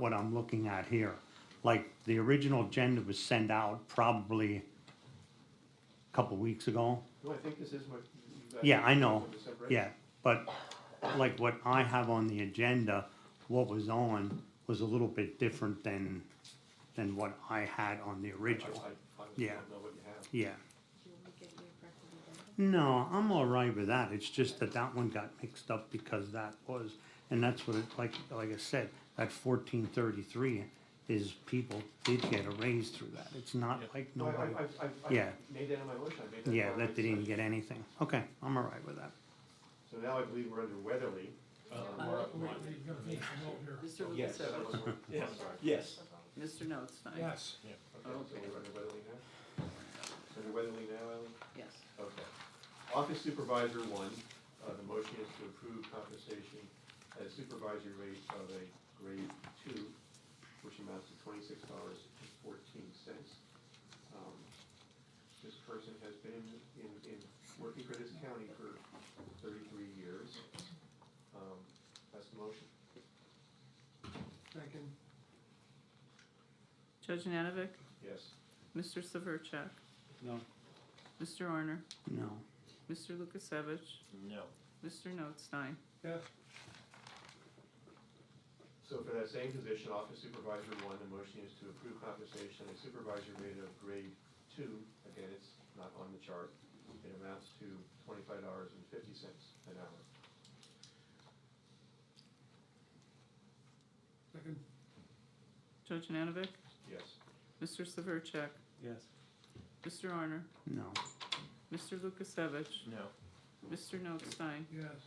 what I'm looking at here. Like, the original agenda was sent out probably a couple weeks ago. No, I think this is what you guys. Yeah, I know, With the separation. yeah, but like what I have on the agenda, what was on was a little bit different than, than what I had on the I- original, I- I Yeah. don't know what you have. yeah. Do you want me to get you a record of that? No, I'm all right with that, it's just that that one got mixed up because that was, and that's what it, like, like I said, that fourteen thirty-three is people did get a raise through that, it's not like No, I, nobody, I, I, I- I Yeah. made that in my motion, I made that. in yeah, my that they didn't discussion. get anything, okay, I'm all right with that. So now I believe we're under Weatherly. Oh, Mr. Yes. Lukasevich? I'm sorry. Yes. Mr. Notstein? Yes. Okay, so we're under Weatherly now? So Under Weatherly now, Ellen? Yes. Okay. Office supervisor one, uh, the motion is to approve compensation at a supervisory rate of a grade two, which amounts to twenty-six dollars and fourteen cents. Um, This person has been in, in, working for this county for thirty-three years. Um, That's the motion. Second. Judge Nanovic? Yes. Mr. Severcek? No. Mr. Arner? No, Mr. Lukasevich? No. Mr. Notstein? Yes. So for that same position, office supervisor one, the motion is to approve compensation at supervisor rate of grade two, again, it's not on the chart, it amounts to twenty-five dollars and fifty cents an hour. Second. Judge Nanovic? Yes. Mr. Severcek? Yes. Mr. Arner? no, Mr. Lukasevich? No. Mr. Notstein? Yes.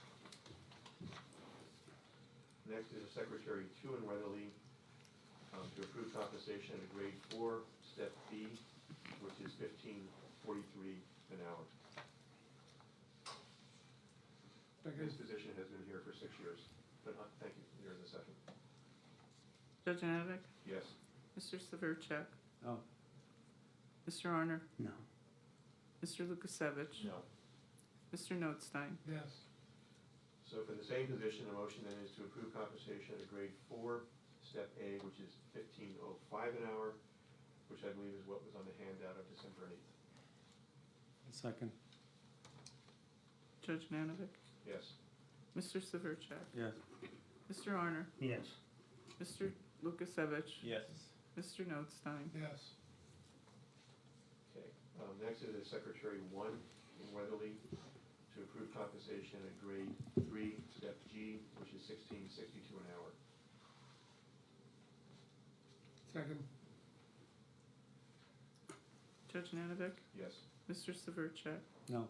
Next is secretary two in Weatherly, um, to approve compensation at a grade four, step B, which is fifteen forty-three an hour. This position has been here for six years, but, uh, thank you, you're in the second. Judge Nanovic? Yes. Mr. Severcek? No. Mr. Arner? no, Mr. Lukasevich? No. Mr. Notstein? Yes. So for the same position, the motion then is to approve compensation at a grade four, step A, which is fifteen oh five an hour, which I believe is what was on the handout of December eighth. Second. Judge Nanovic? Yes. Mr. Severcek? Yes. Mr. Arner? yes, Mr. Lukasevich? Yes. Mr. Notstein? Yes. Okay. Um, next is Secretary one in Weatherly to approve compensation at grade three, step G, which is sixteen sixty-two an hour. Second. Judge Nanovic? Yes. Mr. Severcek? No.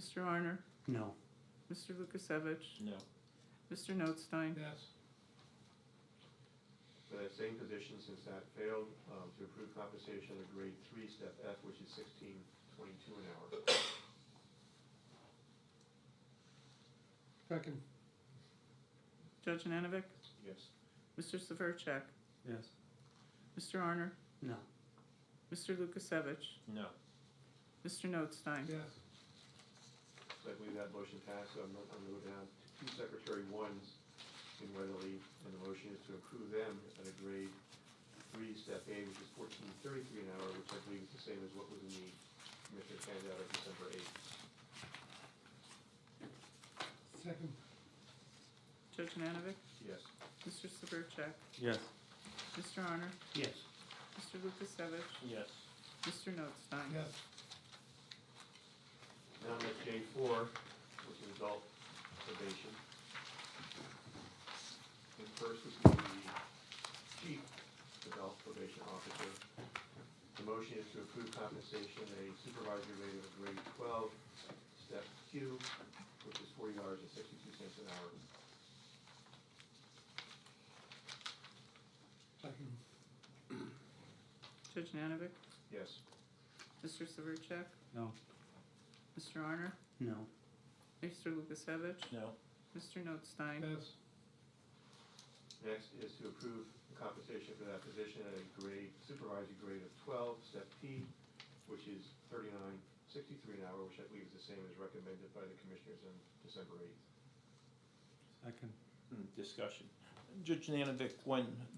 Mr. Arner? no, Mr. Lukasevich? No. Mr. Notstein? Yes. For that same position, since that failed, um, to approve compensation at grade three, step F, which is sixteen twenty-two an hour. Second. Judge Nanovic? Yes. Mr. Severcek? Yes. Mr. Arner? no, Mr. Lukasevich? No. Mr. Notstein? Yes. So I believe that motion passed, so I'm going to go down to Secretary ones in Weatherly, and the motion is to approve them at a grade three, step A, which is fourteen thirty-three an hour, which I believe is the same as what was in the commissioner's handout of December eighth. Second. Judge Nanovic? Yes. Mr. Severcek? Yes. Mr. Arner? yes, Mr. Lukasevich? Yes. Mr. Notstein? Yes. Now that's J four, which is adult probation. And first is the chief adult probation officer. The motion is to approve compensation at a supervisory rate of grade twelve, step Q, which is forty dollars and sixty-two cents an hour. Second. Judge Nanovic? Yes. Mr. Severcek? No. Mr. Arner? no, Mr. Lukasevich? No. Mr. Notstein? Yes. Next is to approve the compensation for that position at a grade, supervisory grade of twelve, step P, which is thirty-nine sixty-three an hour, which I believe is the same as recommended by the commissioners on December eighth. Second. Mm, Discussion. Judge Nanovic, when